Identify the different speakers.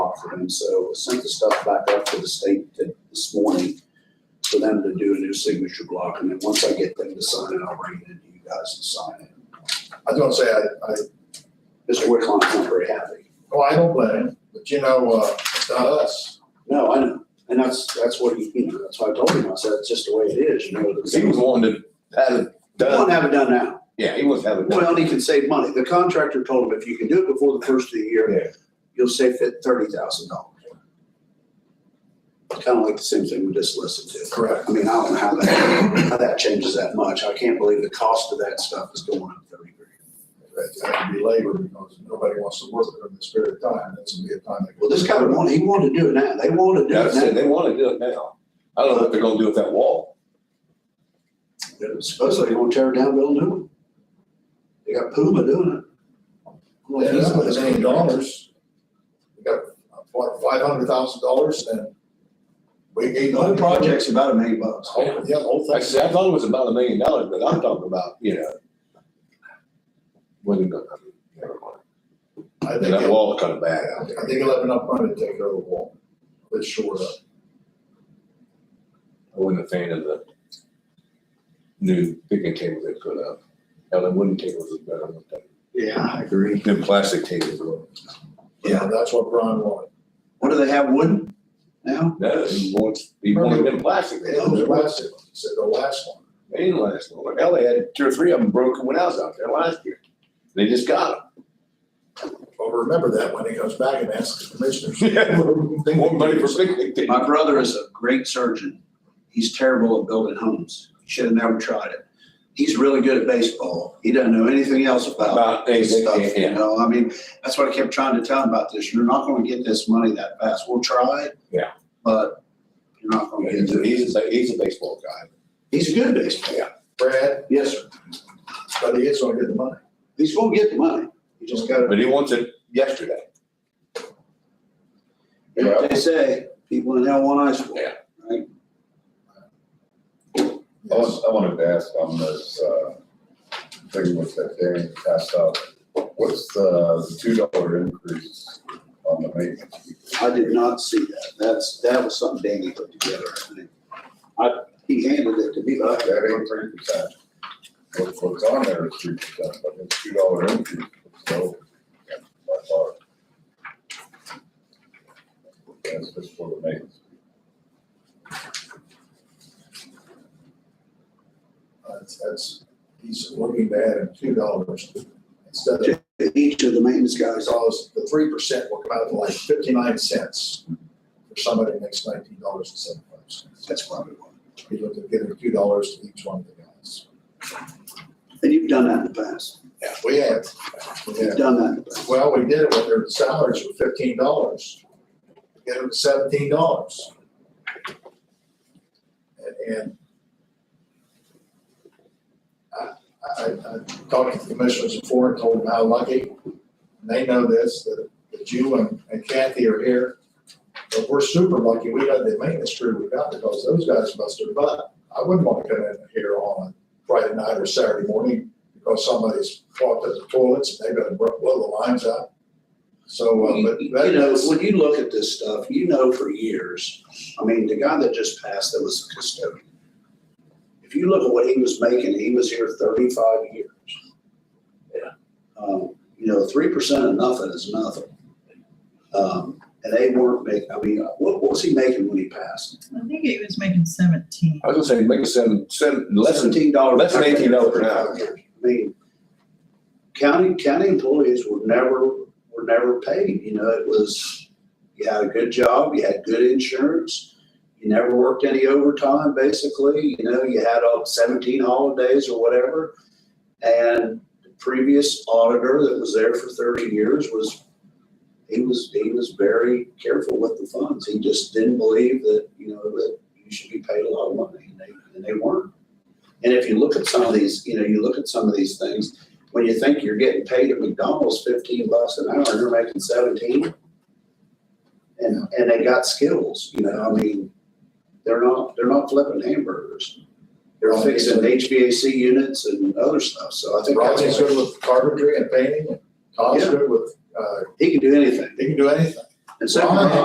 Speaker 1: out for them, so I sent the stuff back up to the state th- this morning for them to do a new signature block, and then once I get them to sign it, I'll bring it in to you guys and sign it.
Speaker 2: I don't say I, I,
Speaker 1: Mr. Whitlock's not very happy.
Speaker 2: oh, I don't blame him, but you know, uh, it's not us.
Speaker 1: No, I know, and that's, that's what he, you know, that's why I told him, I said, it's just the way it is, you know.
Speaker 3: Because he was wanting to have it
Speaker 1: He won't
Speaker 3: done.
Speaker 1: have it done now.
Speaker 3: Yeah, he wants to have it done.
Speaker 1: Well, and he can save money. The contractor told him if you can do it before the first of the
Speaker 3: Yeah.
Speaker 1: year, you'll save it thirty thousand dollars. Kind of like the same thing we just listened to.
Speaker 2: Correct.
Speaker 1: I mean, I don't know how that, how that changes that much. I can't believe the cost of that stuff is going up thirty grand.
Speaker 2: It's had to be labor because nobody wants to work during this period of time, that's gonna be a time. that-
Speaker 1: Well, this guy wanted, he wanted to do it now. They want to do
Speaker 3: Yeah, I said,
Speaker 1: it
Speaker 3: they wanna do it now. I don't know what they're gonna do with that wall.
Speaker 1: now. Supposedly they want to tear it down, build a new one. They got Puma doing it. I'm like,
Speaker 2: Yeah,
Speaker 1: he's
Speaker 2: that's
Speaker 1: not
Speaker 2: what
Speaker 1: a
Speaker 2: it's
Speaker 1: million
Speaker 2: named
Speaker 1: dollars.
Speaker 2: dollars. We got, uh, what, five hundred thousand dollars and we gave.
Speaker 1: The whole project's about a million bucks.
Speaker 2: Yeah, the whole
Speaker 3: Like I
Speaker 2: thing.
Speaker 3: said, I thought it was about a million dollars, but I'm talking about, you know. Wasn't gonna, I mean, never mind.
Speaker 2: I
Speaker 3: And
Speaker 2: think,
Speaker 3: That
Speaker 2: it-
Speaker 3: wall kind of bad out
Speaker 2: I
Speaker 3: there.
Speaker 2: think it'll have enough money to take care of the wall. It's short up.
Speaker 3: I wasn't a fan of the new picnic tables they put up. Now, the wooden tables is better than that.
Speaker 1: Yeah, I agree.
Speaker 3: The plastic tables were.
Speaker 2: Yeah, that's what Brian wanted.
Speaker 1: What do they have, wooden now?
Speaker 3: No, he wants, he wanted them plastic.
Speaker 2: It was the last, one. he said the last one.
Speaker 3: They didn't last long. Hell, they had two or three of them broken when I was out there last year. They just got
Speaker 2: Well, remember that when he comes back and asks the commissioners.
Speaker 3: them. More money for picnic tables.
Speaker 1: My brother is a great surgeon. He's terrible at building homes. Should have never tried it. He's really good at baseball. He doesn't know anything else about
Speaker 3: About
Speaker 1: this
Speaker 3: anything,
Speaker 1: stuff, you
Speaker 3: yeah.
Speaker 1: know? I mean, that's what I kept trying to tell him about this. You're not gonna get this money that fast. We'll try it.
Speaker 3: Yeah.
Speaker 1: But you're not gonna get
Speaker 3: He's
Speaker 1: it.
Speaker 3: a, he's a baseball guy.
Speaker 1: He's a good baseball.
Speaker 2: Brad,
Speaker 1: Yes, sir.
Speaker 2: but he is gonna get the money.
Speaker 1: He's gonna get the money. You just gotta,
Speaker 3: But he wants it yesterday.
Speaker 1: you know what they say, people in hell want ice water. Right?
Speaker 4: I was- I wanted to ask on this, uh, thing with that Danny passed out, what's the two dollar increase on the maintenance?
Speaker 1: I did not see that. That's, that was something Danny put together, I think. I, he handed it to me, but I
Speaker 4: That ain't three percent. What's, what's on there is three percent, but it's two dollar increase, so, by far. That's just for the maintenance.
Speaker 2: That's, Uh, that's, he's looking to add in two dollars instead of,
Speaker 1: each of the maintenance guys, all-
Speaker 2: because the three percent will come out to like fifty-nine cents for somebody that makes nineteen dollars and seventy-five cents.
Speaker 1: that's probably one.
Speaker 2: He's looking to give him two dollars to each one of the guys.
Speaker 1: And you've done that in the past.
Speaker 2: Yeah, we have, we have.
Speaker 1: You've done that in the past.
Speaker 2: Well, we did it when their salaries were fifteen dollars. Get them to seventeen dollars. And, and I, I, I talked to the commissioners before and told them how lucky, and they know this, that, that you and and Kathy are here. But we're super lucky, we got the maintenance crew we got because those guys busted their butt. I wouldn't want to come in here on a Friday night or Saturday morning because somebody's clogged up the toilets and they better blow the lines out. So, uh, but
Speaker 1: You
Speaker 2: that
Speaker 1: know,
Speaker 2: is,
Speaker 1: when you look at this stuff, you know for years, I mean, the guy that just passed, that was the custodian. If you look at what he was making, he was here thirty-five years. Yeah. Um, you know, three percent of nothing is nothing. Um, and they weren't making, I mean, what, what was he making when he passed?
Speaker 5: I think it was making seventeen.
Speaker 3: I was gonna say, make it seven, seven, less than,
Speaker 1: Seventeen dollars.
Speaker 3: less than $18 an hour.
Speaker 1: I mean, county, county employees were never, were never paid, you know, it was, you had a good job, you had good insurance, you never worked any overtime, basically, you know, you had uh, seventeen holidays or whatever. And the previous auditor that was there for thirty years was, he was, he was very careful with the funds. He just didn't believe that, you know, that you should be paid a lot of money, and they, and they weren't. And if you look at some of these, you know, you look at some of these things, when you think you're getting paid at McDonald's fifteen bucks an hour, and you're making seventeen. And, and they got skills, you know, I mean, they're not, they're not flipping hamburgers. They're fixing HVAC units and other stuff, so I think
Speaker 2: Rodney's
Speaker 1: that's
Speaker 2: good
Speaker 1: why
Speaker 2: with carpentry and painting, and Todd's
Speaker 1: Yeah.
Speaker 2: good with, uh,
Speaker 1: he can do anything.
Speaker 2: he can do anything.
Speaker 6: And so.
Speaker 1: Ron